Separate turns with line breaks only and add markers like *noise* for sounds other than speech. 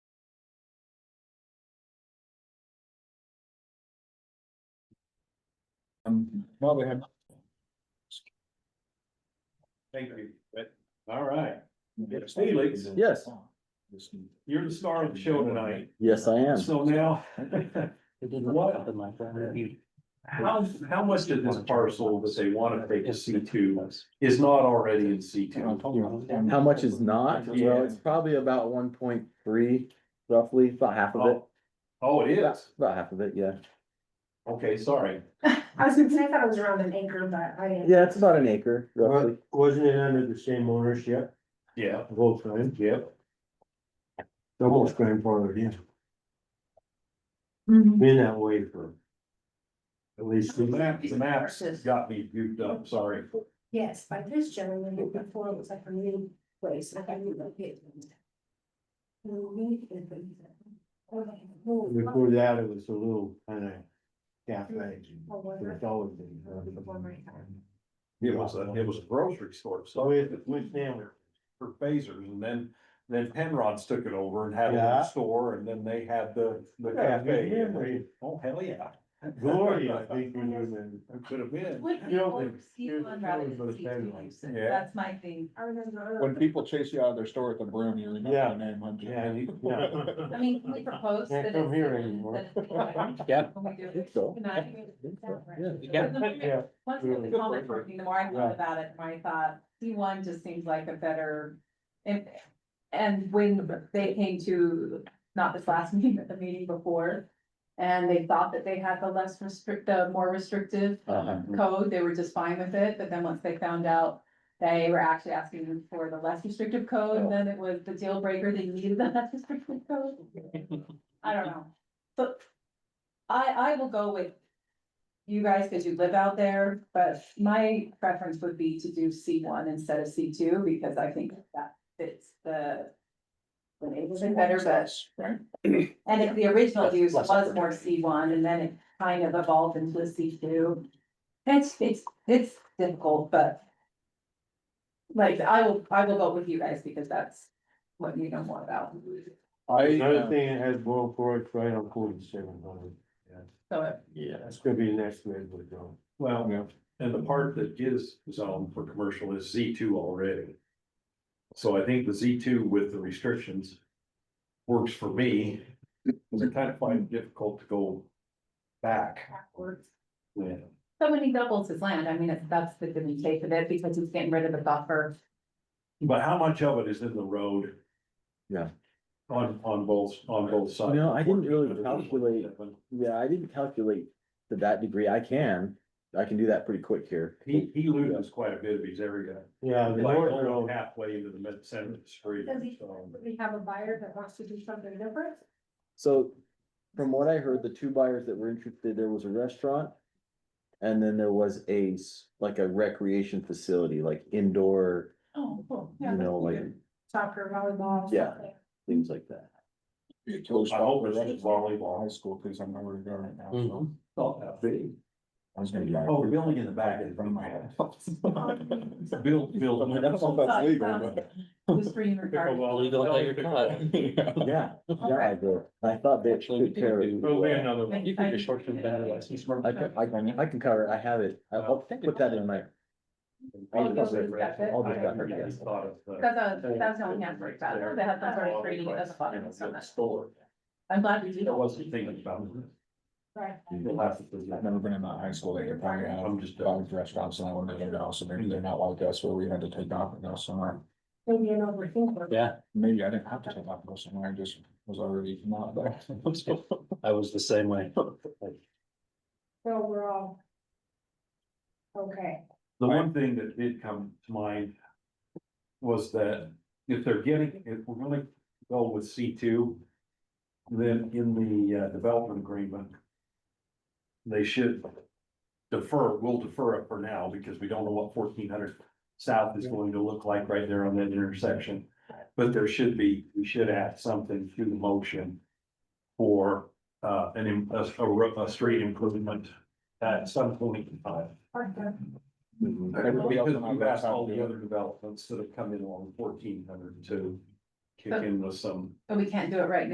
Um, well, we have,
Thank you, but, all right, Felix.
Yes.
you're the star of the show tonight,
Yes, I am.
so now. What?
Something like that.
How, how much of this parcel that they wanna take to C two is not already in C two?
Um,
How much is not? Well, it's probably about one point three, roughly, about half of it.
Oh, it is,
About half of it, yeah.
okay, sorry,
I was gonna say, I thought it was around an acre, but I didn't.
Yeah, it's about an acre, roughly.
Wasn't it under the same ownership,
yeah,
Volkswagen,
yeah,
almost grandfathered in, been that way for. At least.
the map, the maps got me goofed up, sorry.
Yes, by this gentleman, before it was like a new place, like a new location.
Before that, it was a little kind of cafe. It's always been.
It was a, it was a grocery store,
So
so
it went down.
for phasers, and then, then Penrod's took it over and had a
Yeah.
little store, and then they had the, the
Yeah, good
cafe.
memory.
Oh, hell, yeah.
Glory,
*laughs*
I think, when you're in.
It Could have been.
Would
You
be
don't
over
think-
C
here's
one
the
rather
thing
than
with
C
those
two
guys.
uses,
Yeah.
that's my thing.
I remember. uh,
when people chase you out of their store at the broom, you remember
Yeah.
their name, aren't you?
Yeah, you- yeah.
*laughs* I mean, can we propose
Can't
that it's.
come here
that it's
anymore. *laughs*
allowed?
Yeah.
Can we do
I
it?
think so.
Can
I
I?
think so, *laughs* yeah.
Because the more-
Yeah.
Once the
Good
comment
point.
from me, the more I
Yeah.
thought about it, the more I thought, C one just seems like a better. And, and when they came to, not this last *laughs* meeting, but the meeting before. And they thought that they had the less restrict, the more restrictive
Uh-huh.
code, they were just fine with it, but then once they found out. They were actually asking them for the less restrictive
Oh.
code, then it was the deal breaker, they needed the *laughs* less restrictive code. I don't know, but I, I will go with. You guys, cause you live out there, but my preference would be to do C one instead of C two, because I think that fits the. the neighborhood better, but
Right?
and if the original
Less-
use
less
was more C one and then it kind of evolved into a C two. It's, it's, it's difficult, but. Like, I will, I will go with you guys because that's what you know more about.
*laughs* I,
Another
uh,
thing that has boiled for it's right on forty-seven hundred.
So
Yeah.
That's gonna be the next red wood zone.
Yeah.
Well, and the part that is zoned for commercial is Z two already. So I think the Z two with the restrictions works for me, because I kind of find it difficult to go back.
backwards.
Yeah.
So when he doubles his land, I mean, it's- that's the good take of it because he's getting rid of the buffer.
But how much of it is in the road?
Yeah.
On, on both, on both sides.
No, I didn't really calculate. Yeah, I didn't calculate to that degree. I can, I can do that pretty quick here.
He, he loses quite a bit of his area,
Yeah, the
like
north
going
road,
halfway into the mid center of the street.
Does he-
so.
We have a buyer that wants to do something different.
So from what I heard, the two buyers that were interested, there was a restaurant. And then there was a, s- like a recreation facility, like indoor,
Oh, cool.
you know, like
Soccer, volleyball. stuff
Yeah.
like-
things like that.
it goes
I
off
hope
the
it's
rest
just
of
volleyball.
high school, because I'm not where to go right now, so.
Mhm.
Not that big.
I was gonna drive.
Oh, building in the back is from my head. *laughs* Build, build.
I don't know if that's legal, but.
Just for you regarding-
*laughs*
Yeah, yeah, I did. I thought they took care of it.
another
one. You can just shorten it down to like six
I can, I can, I can cover it. I have it. I'll- I'll put that in my,
All those are separate.
All those are separate,
That's a, that's the only answer about it. They have some sort of training at the bottom, so that's-
Store.
I'm glad we did.
I wasn't thinking about
Right.
I've
it.
never been in that high school, they could probably have
I'm just-
five restaurants and I wouldn't even know, so maybe they're not like us, where we had to take off and go somewhere.
Maybe an overthinker.
Yeah,
Maybe I didn't have to take off and go somewhere, I just was already not there.
I was the same way.
So we're all. Okay.
The one thing that did come to mind was that if they're getting, if we're gonna go with C two, then in the uh, development agreement, they should defer, we'll defer it for now because we don't know what fourteen hundred south is going to look like right there on that intersection. But there should be, we should add something to the motion for uh, an, im- a, a ro- a street improvement at some point in time.
Okay.
Everybody else
Because
on my
we've asked
route
all
had to do
the
it.
other developments that have come in along fourteen hundred to kick in with some
But we can't do it right now.